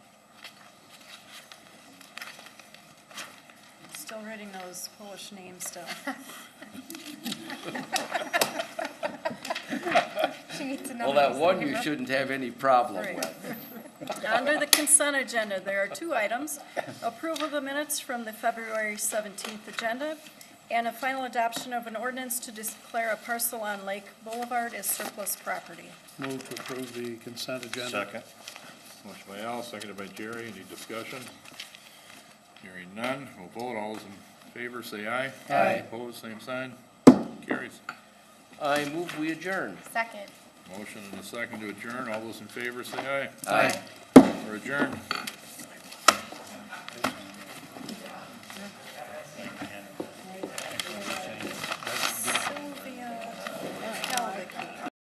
still reading those Polish names still. She needs to know. Well, that one you shouldn't have any problem Right. with. Under the consent agenda, there are two items. Approval of the minutes from the February 17th agenda and a final adoption of an ordinance to declare a parcel on Lake Boulevard as surplus property. Move to approve the consent agenda. Second. Motion by Al, seconded by Jerry. Any discussion? Hearing none, we'll vote. All those in favor, say aye. Aye. Opposed, same sign. Carries. I move we adjourn. Second. Motion and a second to adjourn. All those in favor, say aye. Aye. We're adjourned.